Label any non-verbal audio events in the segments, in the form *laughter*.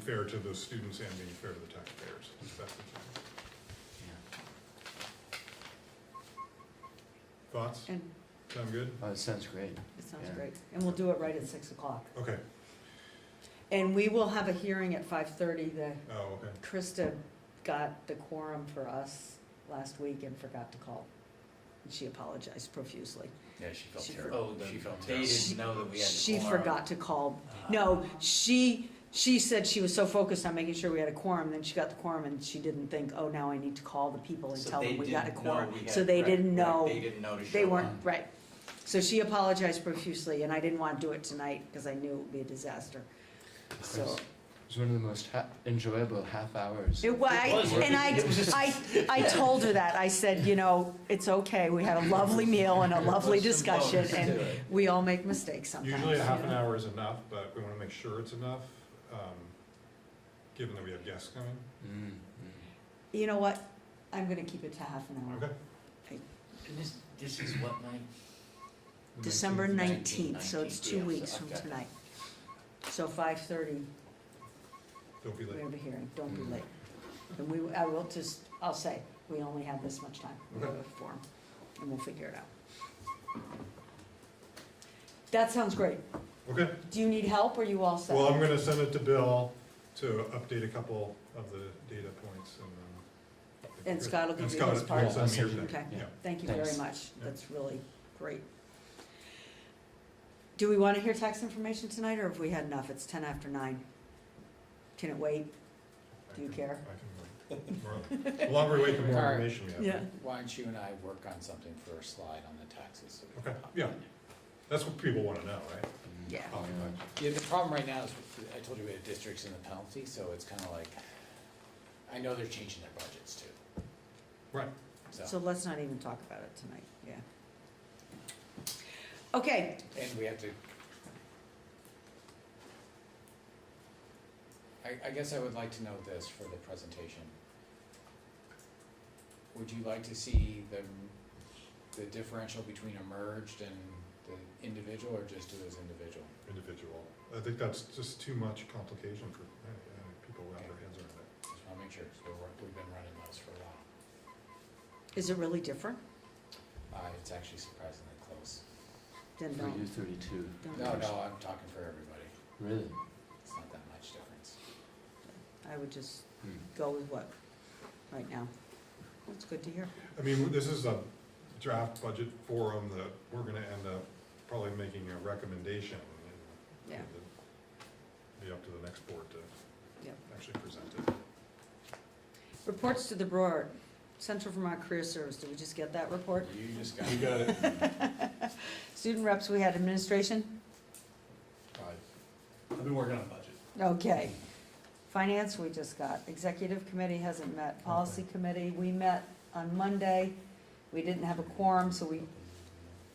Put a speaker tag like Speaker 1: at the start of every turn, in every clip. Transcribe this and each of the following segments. Speaker 1: fair to the students and being fair to the taxpayers. That's the thing. Thoughts?
Speaker 2: And
Speaker 1: Sound good?
Speaker 3: Oh, it sounds great.
Speaker 2: it sounds
Speaker 3: Yeah.
Speaker 2: great. And we'll do it right at six o'clock.
Speaker 1: Okay,
Speaker 2: And we will have a hearing at five thirty. The,
Speaker 1: oh, okay.
Speaker 2: Krista got the quorum for us last week and forgot to call. And she apologized profusely.
Speaker 3: Yeah, she felt
Speaker 2: She-
Speaker 3: terrible.
Speaker 4: Oh, the-
Speaker 3: She felt
Speaker 4: they
Speaker 3: terrible.
Speaker 4: didn't know that we had
Speaker 2: She
Speaker 4: a quorum.
Speaker 2: forgot to call.
Speaker 5: Uh-huh.
Speaker 2: No, she, she said she was so focused on making sure we had a quorum, then she got the quorum and she didn't think, oh, now I need to call the people and
Speaker 4: So
Speaker 2: tell
Speaker 4: they
Speaker 2: them we got a
Speaker 4: didn't know
Speaker 2: quorum.
Speaker 4: we
Speaker 2: So
Speaker 4: had-
Speaker 2: they
Speaker 4: right,
Speaker 2: didn't
Speaker 4: right,
Speaker 2: know.
Speaker 4: They didn't know to
Speaker 2: They
Speaker 4: show
Speaker 2: weren't,
Speaker 4: up.
Speaker 2: right. So she apologized profusely, and I didn't want to do it tonight because I knew it would be a disaster. So,
Speaker 3: It was one of the most ha- enjoyable half hours.
Speaker 2: it was,
Speaker 4: was,
Speaker 2: and I, I, I told her that. I said, you know, it's okay. We had a lovely meal and a lovely discussion, and we all make mistakes sometimes.
Speaker 1: Usually a
Speaker 2: you
Speaker 1: half an
Speaker 2: know?
Speaker 1: hour is enough, but we wanna make sure it's enough, um, given that we have guests coming.
Speaker 3: Mm,
Speaker 2: You know what? I'm gonna keep it to half an hour.
Speaker 1: Okay.
Speaker 4: And this, this is what night?
Speaker 2: December
Speaker 4: 19th,
Speaker 2: nineteenth, so it's
Speaker 4: 19th,
Speaker 2: two
Speaker 4: yeah,
Speaker 2: weeks
Speaker 4: so
Speaker 2: from
Speaker 4: I've got-
Speaker 2: tonight. So five thirty,
Speaker 1: Don't be
Speaker 2: we
Speaker 1: late.
Speaker 2: have a hearing, don't be
Speaker 3: Mm.
Speaker 2: late. And we, I will just, I'll say, we only have this much time, we have a form, and we'll figure it out. That sounds great.
Speaker 1: Okay,
Speaker 2: Do you need help, or you all set?
Speaker 1: well, I'm gonna send it to Bill to update a couple of the data points and um, then.
Speaker 2: And Scott will give you his
Speaker 1: Scott
Speaker 2: part.
Speaker 1: will send me
Speaker 3: Yeah, I'll
Speaker 1: everything.
Speaker 2: Okay.
Speaker 1: Yeah.
Speaker 2: Thank you very
Speaker 3: Thanks.
Speaker 2: much,
Speaker 1: Yeah.
Speaker 2: that's really great. Do we wanna hear tax information tonight, or have we had enough? It's ten after nine. Can it wait?
Speaker 1: I
Speaker 2: Do you
Speaker 1: can-
Speaker 2: care?
Speaker 1: I can wait. The Longer we wait, the more
Speaker 5: Alright.
Speaker 1: information we have.
Speaker 5: Why don't you and I work on something for a slide on the taxes? so we can
Speaker 1: Okay,
Speaker 5: talk
Speaker 1: yeah.
Speaker 5: about it.
Speaker 1: That's what people wanna know, right?
Speaker 3: mm.
Speaker 2: Yeah.
Speaker 1: Oftentimes.
Speaker 5: Yeah, the problem right now is, I told you we have districts and the penalty, so it's kind of like, I know they're changing their budgets too.
Speaker 1: Right.
Speaker 5: So,
Speaker 2: So let's not even talk about it tonight, yeah. Okay,
Speaker 5: and we have to. I, I guess I would like to know this for the presentation. Would you like to see the, the differential between a merged and the individual, or just do it as individual?
Speaker 1: individual. I think that's just too much complication for uh, uh, people who have their hands around it.
Speaker 5: Just wanna make sure, we we've been running those for a while.
Speaker 2: is it really different?
Speaker 5: Uh, it's actually surprisingly close.
Speaker 2: Then
Speaker 3: For you,
Speaker 2: don't,
Speaker 3: thirty-two.
Speaker 2: don't.
Speaker 5: No, no, I'm talking for everybody.
Speaker 3: Really?
Speaker 5: It's not that much difference.
Speaker 2: I would just
Speaker 3: Mm.
Speaker 2: go with what, right now. That's good to hear.
Speaker 1: I mean, this is a draft budget forum that we're gonna end up probably making a recommendation. and
Speaker 2: Yeah.
Speaker 1: it'll Be up to the next board to
Speaker 2: Yep.
Speaker 1: actually present it.
Speaker 2: Reports to the Broad, Central Vermont Career Service, did we just get that
Speaker 5: *laughs*
Speaker 2: report?
Speaker 5: You just got.
Speaker 1: You got it.
Speaker 2: Student reps, we had administration?
Speaker 6: I've been working on budget.
Speaker 2: Okay. Finance, we just got. Executive committee hasn't met. Policy committee, we met on Monday. We didn't have a quorum, so we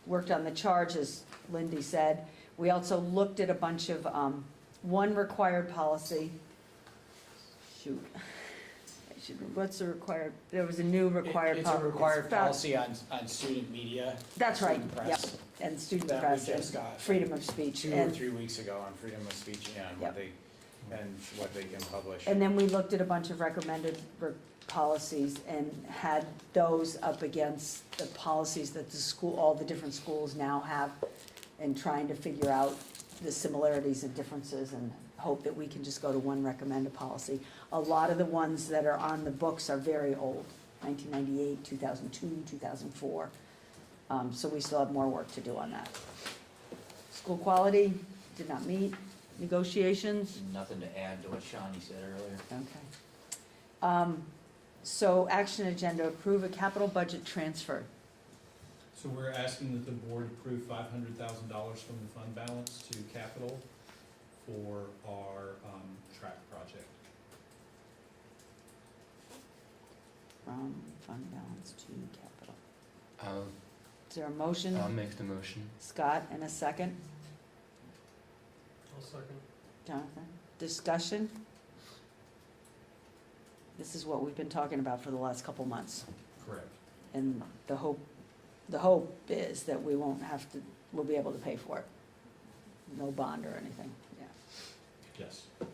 Speaker 2: worked on the charge, as Lindy said. We also looked at a bunch of, um, one required policy. Shoot. I should, what's the required, there was a new
Speaker 5: It-
Speaker 2: required.
Speaker 5: It's a
Speaker 2: pol-
Speaker 5: required
Speaker 2: it's about-
Speaker 5: policy on, on student media.
Speaker 2: That's right,
Speaker 5: student
Speaker 2: yep,
Speaker 5: press,
Speaker 2: and student
Speaker 5: That we
Speaker 2: press,
Speaker 5: just
Speaker 2: and
Speaker 5: got
Speaker 2: freedom of speech.
Speaker 5: two or
Speaker 2: And,
Speaker 5: three weeks ago on freedom of speech
Speaker 2: Yep.
Speaker 5: and what they, and what they can publish.
Speaker 2: and then we looked at a bunch of recommended re- policies and had those up against the policies that the school, all the different schools now have, and trying to figure out the similarities and differences and hope that we can just go to one recommended policy. A lot of the ones that are on the books are very old, 1998, 2002, 2004. Um, So we still have more work to do on that. School quality, did not meet. Negotiations,
Speaker 4: Nothing to add to what Shawnee said earlier.
Speaker 2: okay. Um, So action agenda, approve a capital budget transfer.
Speaker 6: So we're asking that the board approve five hundred thousand dollars from the fund balance to capital for our, um, track project.
Speaker 2: from fund balance to capital.
Speaker 3: I'll,
Speaker 2: Is there a motion?
Speaker 3: I'll make the motion.
Speaker 2: Scott, and a second?
Speaker 6: I'll second.
Speaker 2: Jonathan? Discussion? This is what we've been talking about for the last couple months,
Speaker 6: Correct.
Speaker 2: and the hope, the hope is that we won't have to, we'll be able to pay for it. No bond or anything, yeah.
Speaker 6: Yes.